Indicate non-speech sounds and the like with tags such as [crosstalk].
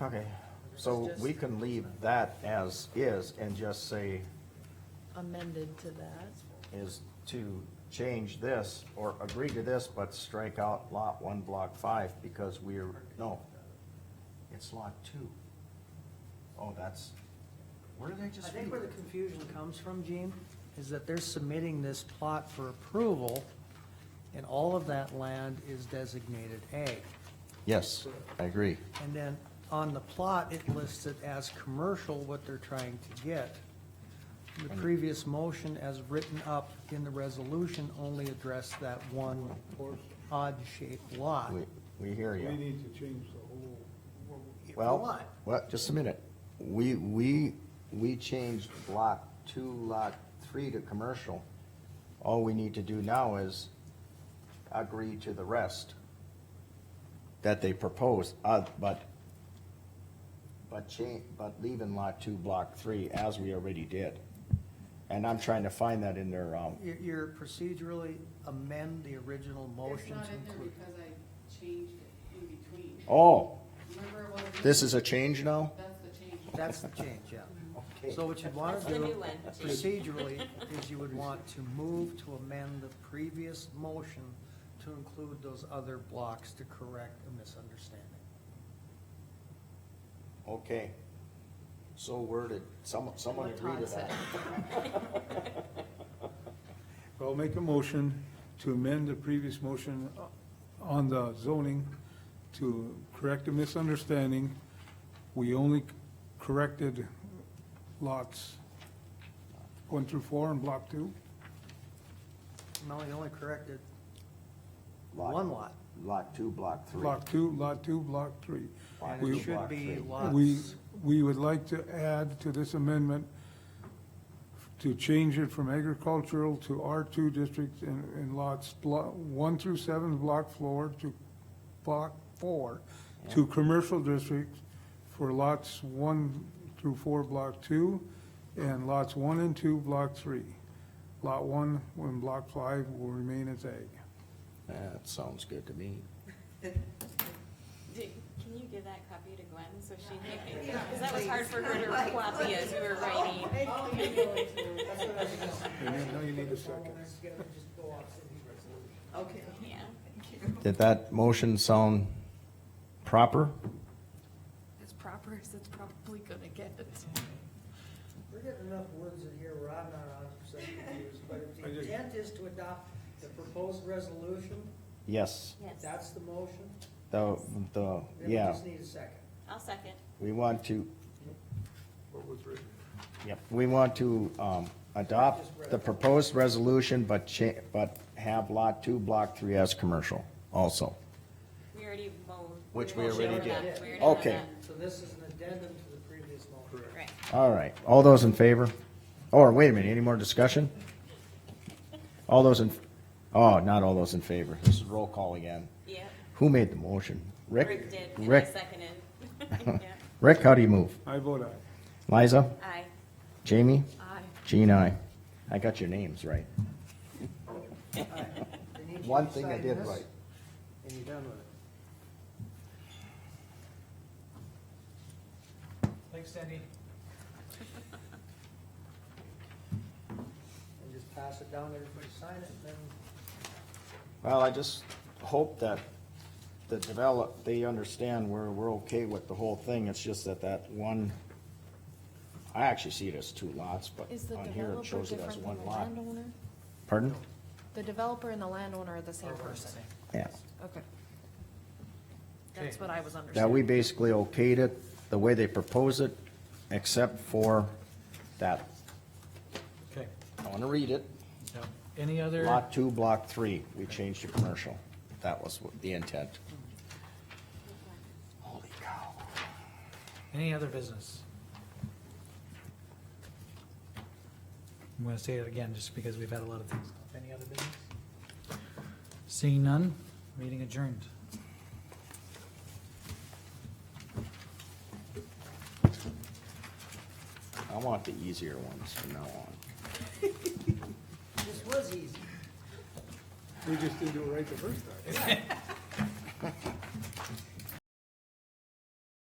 Okay, so we can leave that as is and just say amended to that. is to change this or agree to this, but strike out lot one, block five, because we're, no. It's lot two. Oh, that's, where did I I just read? think where the confusion comes from, Gene, is that they're submitting this plot for approval, and all of that land is designated A. Yes, I agree. And then on the plot, it lists it as commercial, what they're trying to get. The previous motion as written up in the resolution only addressed that one odd-shaped lot. We, we hear We you. need to change the whole, Well, Lot. well, just a minute. We, we, we changed lot two, lot three to commercial. All we need to do now is agree to the rest that they propose, uh, but, but change, but leaving lot two, block three as we already did. And I'm trying to find that in their, um, You- You're procedurally amend the original It's motion not to in there include. because I changed it in between. oh, Remember it wasn't. this is a change now? That's the change. That's the change, Mm-hmm. yeah. Okay. So what you'd want That's to the do new one. procedurally [laughs] is you would want to move to amend the previous motion to include those other blocks to correct a misunderstanding. Okay. So worded, someone, someone What agree to Todd said. that. I'll make a motion to amend the previous motion on the zoning to correct a misunderstanding. We only corrected lots one through four and block two. No, you only corrected Lot- one lot. Lot two, block three. Block two, lot two, block three. Lot And two, it We- should block be three. We, lots, we would like to add to this amendment to change it from agricultural to R2 district in, in lots blo- 1 through 7, block 4 to block 4, to commercial district for lots 1 through 4, block 2, and lots 1 and 2, block 3. Lot 1 and block 5 will remain as ag. That sounds good to me. Did, can you give that copy to Gwen so she can, because that was hard for her to copy as we were writing. And now you need a second. Okay. Yeah. Did that motion sound proper? As proper as it's probably gonna get. We're getting enough words in here where I'm not a hundred percent confused, but if I the just- intent is to adopt the proposed resolution, Yes, Yes. that's the motion, the, the, then we yeah, just need a second. I'll second. we want to, What was written? yep, we want to, um, adopt the proposed resolution, but cha, but have lot two, block three as commercial also. We already mowed. Which we motioned already on did. that. We already Okay. done So this is an addendum to the previous motion. that. Right. All right, all those in favor? Oh, Or, wait a minute, any more discussion? All those in, oh, not all those in favor, this is roll call again. Yeah. Who made the motion? Rick? Rick did, and I Rick, [laughs] seconded. Yeah. Rick, how do you move? I vote aye. Liza? Aye. Jamie? Aye. Gene, I. I got your names right. Then each of you One thing I sign did this, right. And you're done with it. Thanks, Cindy. And just pass it down, everybody sign it, and then Well, I just hope that the develop, they understand we're, we're okay with the whole thing. It's just that that one, I actually see it as two lots, but Is the on here developer it shows it different as than one the lot. landowner? Pardon? The developer and the landowner are the same person. Yeah. Okay. That's what I was That we understanding. basically okayed it the way they propose it, except for that. Okay, I want to read it. now, any other? Lot two, block three, we changed to commercial. That was what the intent. Holy cow. Any other business? I'm gonna say it again, just because we've had a lot of things. Any other business? Seeing none, meeting adjourned. I want the easier ones from now on. this was easy. We just didn't do it right the first time.